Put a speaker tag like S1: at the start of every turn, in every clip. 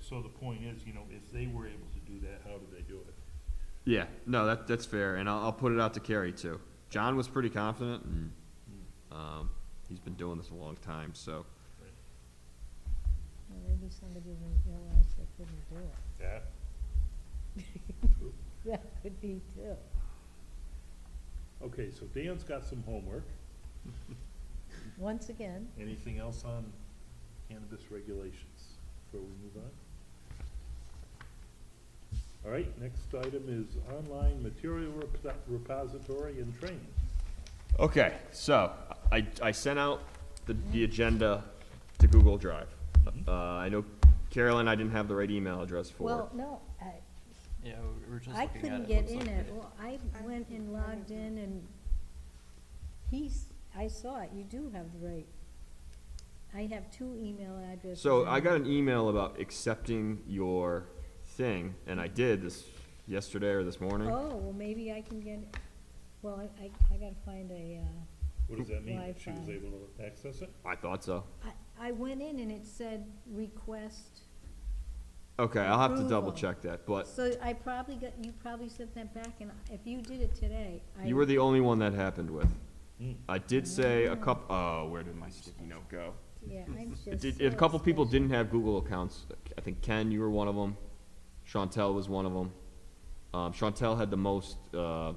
S1: So the point is, you know, if they were able to do that, how did they do it?
S2: Yeah, no, that, that's fair, and I'll, I'll put it out to Kerry too. John was pretty confident, and, um, he's been doing this a long time, so.
S3: Well, maybe somebody didn't realize they couldn't do it.
S1: Yeah.
S3: That could be too.
S1: Okay, so Dan's got some homework.
S3: Once again,
S1: Anything else on cannabis regulations before we move on? All right, next item is online material rep- repository and training.
S2: Okay, so I, I sent out the, the agenda to Google Drive. Uh, I know Carolyn, I didn't have the right email address for it.
S3: well, no, I,
S4: Yeah, we were just
S3: I
S4: looking at it.
S3: couldn't get
S4: Looks like
S3: in
S4: we
S3: it.
S4: did.
S3: Well, I went and logged in and he's, I saw it. You do have the right. I have two email addresses.
S2: So
S3: and
S2: I got an email about accepting your thing, and I did this yesterday or this morning.
S3: Oh, well, maybe I can get, well, I, I, I gotta find a, uh,
S1: What does that mean? That She was
S3: Wi-Fi.
S1: able to access it?
S2: I thought so.
S3: I, I went in and it said request.
S2: Okay, I'll have to
S3: Approval.
S2: double check that, but
S3: So I probably got, you probably sent that back and if you did it today, I.
S2: you were the only one that happened with.
S1: Hmm.
S2: I did say a couple, oh, where did my sticky note go?
S3: Yeah, I'm just.
S2: It did,
S3: so
S2: a couple people
S3: special.
S2: didn't have Google accounts. I think Ken, you were one of them. Chantel was one of them. Um, Chantel had the most, uh,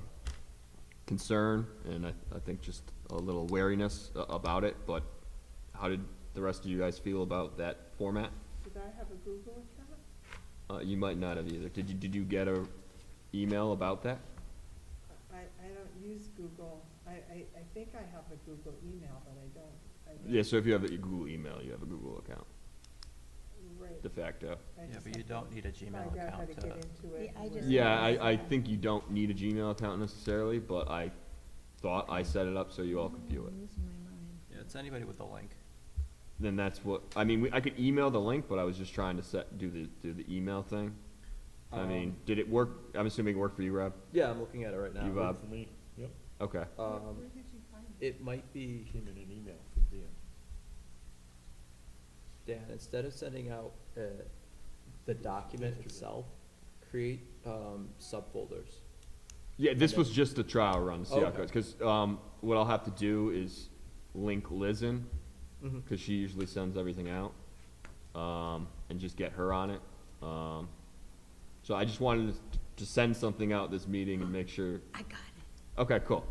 S2: concern and I, I think just a little wariness a- about it, but how did the rest of you guys feel about that format?
S5: Did I have a Google account?
S2: Uh, you might not have either. Did you, did you get a email about that?
S5: I, I don't use Google. I, I, I think I have a Google email, but I don't. I don't-
S2: Yeah, so if you have a Google email, you have a Google account,
S5: Right.
S2: de facto.
S5: I
S4: Yeah,
S5: just
S4: but
S5: have
S4: you
S5: to
S4: don't need a
S5: Find
S4: Gmail
S5: out how
S4: account
S5: to
S4: uh,
S5: get
S4: to,
S5: into it.
S3: Yeah, I
S5: and
S3: just-
S5: where-
S2: Yeah, I, I think you don't need a Gmail account necessarily, but I thought I set it up so you all could view it.
S3: I'm losing my mind.
S4: yeah, it's anybody with a link.
S2: Then that's what, I mean, we, I could email the link, but I was just trying to set, do the, do the email thing. I mean,
S6: Um,
S2: did it work? I'm assuming it worked for you, Rob?
S6: Yeah, I'm looking at it right now.
S2: You, uh,
S1: For me, yep,
S2: Okay.
S6: Um,
S5: Where did you find it?
S6: it might be,
S1: came in an email from Dan.
S6: Dan, instead of sending out, uh, the document itself, create, um, subfolders.
S2: Yeah, this was just the trial run, to see how it
S6: Okay.
S2: goes, cause, um, what I'll have to do is link Liz in,
S4: Mm-hmm.
S6: Mhm.
S2: cause she usually sends everything out, um, and just get her on it. Um, so I just wanted to- to send something out this meeting and make sure
S3: I got it.
S2: Okay, cool.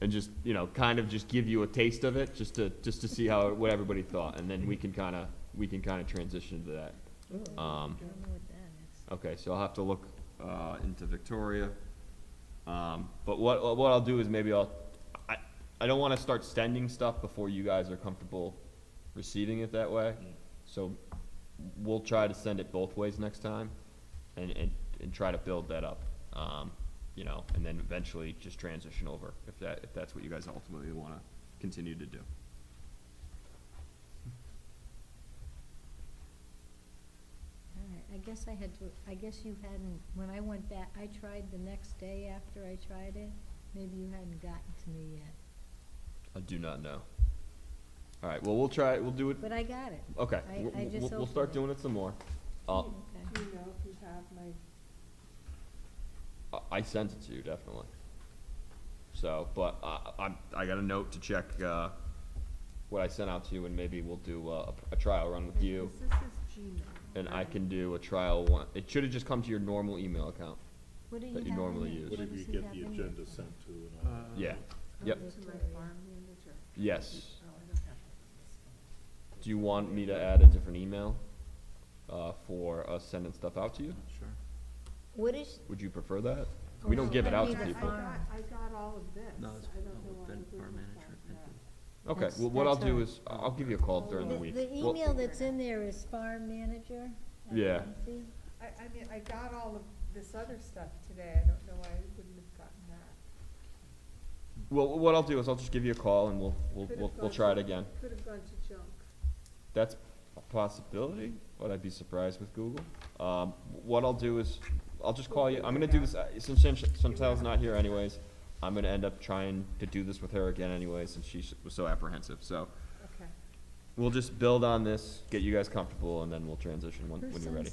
S2: And just, you know, kind of just give you a taste of it, just to, just to see how, what everybody thought, and then we can kinda, we can kinda transition to that. Um,
S3: Oh, I don't know what that is.
S2: Okay, so I'll have to look, uh, into Victoria. Um, but what, what I'll do is maybe I'll, I, I don't wanna start sending stuff before you guys are comfortable receiving it that way. So we'll try to send it both ways next time and, and, and try to build that up. Um, you know, and then eventually just transition over if that, if that's what you guys ultimately wanna continue to do.
S3: All right, I guess I had to, I guess you hadn't, when I went back, I tried the next day after I tried it, maybe you hadn't gotten to me yet,
S2: I do not know. All right, well, we'll try, we'll do it,
S3: but I got it.
S2: okay,
S3: I-
S2: we'll,
S3: I just
S2: we'll- we'll
S3: opened
S2: start
S3: it.
S2: doing it some more. Uh,
S3: Okay.
S5: Do you know if you have my,
S2: I- I sent it to you, definitely. So, but I, I'm, I got a note to check, uh, what I sent out to you, and maybe we'll do a, a trial run with you,
S5: this is Gmail.
S2: and I can do a trial one. It should've just come to your normal email account.
S3: What do you
S2: That
S3: have
S2: you
S3: in
S2: normally
S3: it?
S2: use.
S1: What
S3: What
S1: did
S3: does
S1: you
S3: he
S1: get
S3: have
S1: the
S3: in Oh, it?
S1: agenda sent to and all that?
S2: Yeah, Yep.
S5: To my farm manager.
S2: yes.
S5: Oh, I don't have this one.
S2: Do you want me to add a different email, uh, for us sending stuff out to you?
S4: Sure.
S3: What is,
S2: Would you prefer that? We don't give it
S3: I
S2: out
S3: mean,
S2: to
S5: I-
S3: that's
S2: people.
S5: I got, I got all of this.
S4: No, it's,
S5: I
S4: no,
S5: don't know why
S4: Ben,
S5: the Google
S4: farm manager,
S5: account
S4: Ben
S5: got-
S4: did.
S2: Okay,
S3: That's-
S2: well, what I'll
S3: that's all
S2: do
S3: right.
S2: is, I'll give you a call during the
S3: the,
S2: week.
S3: the
S2: Well,
S3: email that's in there is farm manager? at
S2: Yeah.
S3: Muncie?
S5: I, I mean, I got all of this other stuff today, I don't know why I wouldn't have gotten that.
S2: Well, what I'll do is I'll just give you a call and we'll, we'll,
S5: Could've
S2: we'll, we'll
S5: gone
S2: try it
S5: to-
S2: again.
S5: Could have gone to junk.
S2: That's a possibility, but I'd be surprised with Google. Um, what I'll do is, I'll just call you, I'm gonna do this, uh, since Chan- Chantel's not here anyways, I'm gonna end up trying to do this with her again anyways, since she s- was so apprehensive, so.
S5: Okay.
S2: We'll just build on this, get you guys comfortable, and then we'll transition when,
S3: Who
S2: when you're
S3: sends
S2: ready.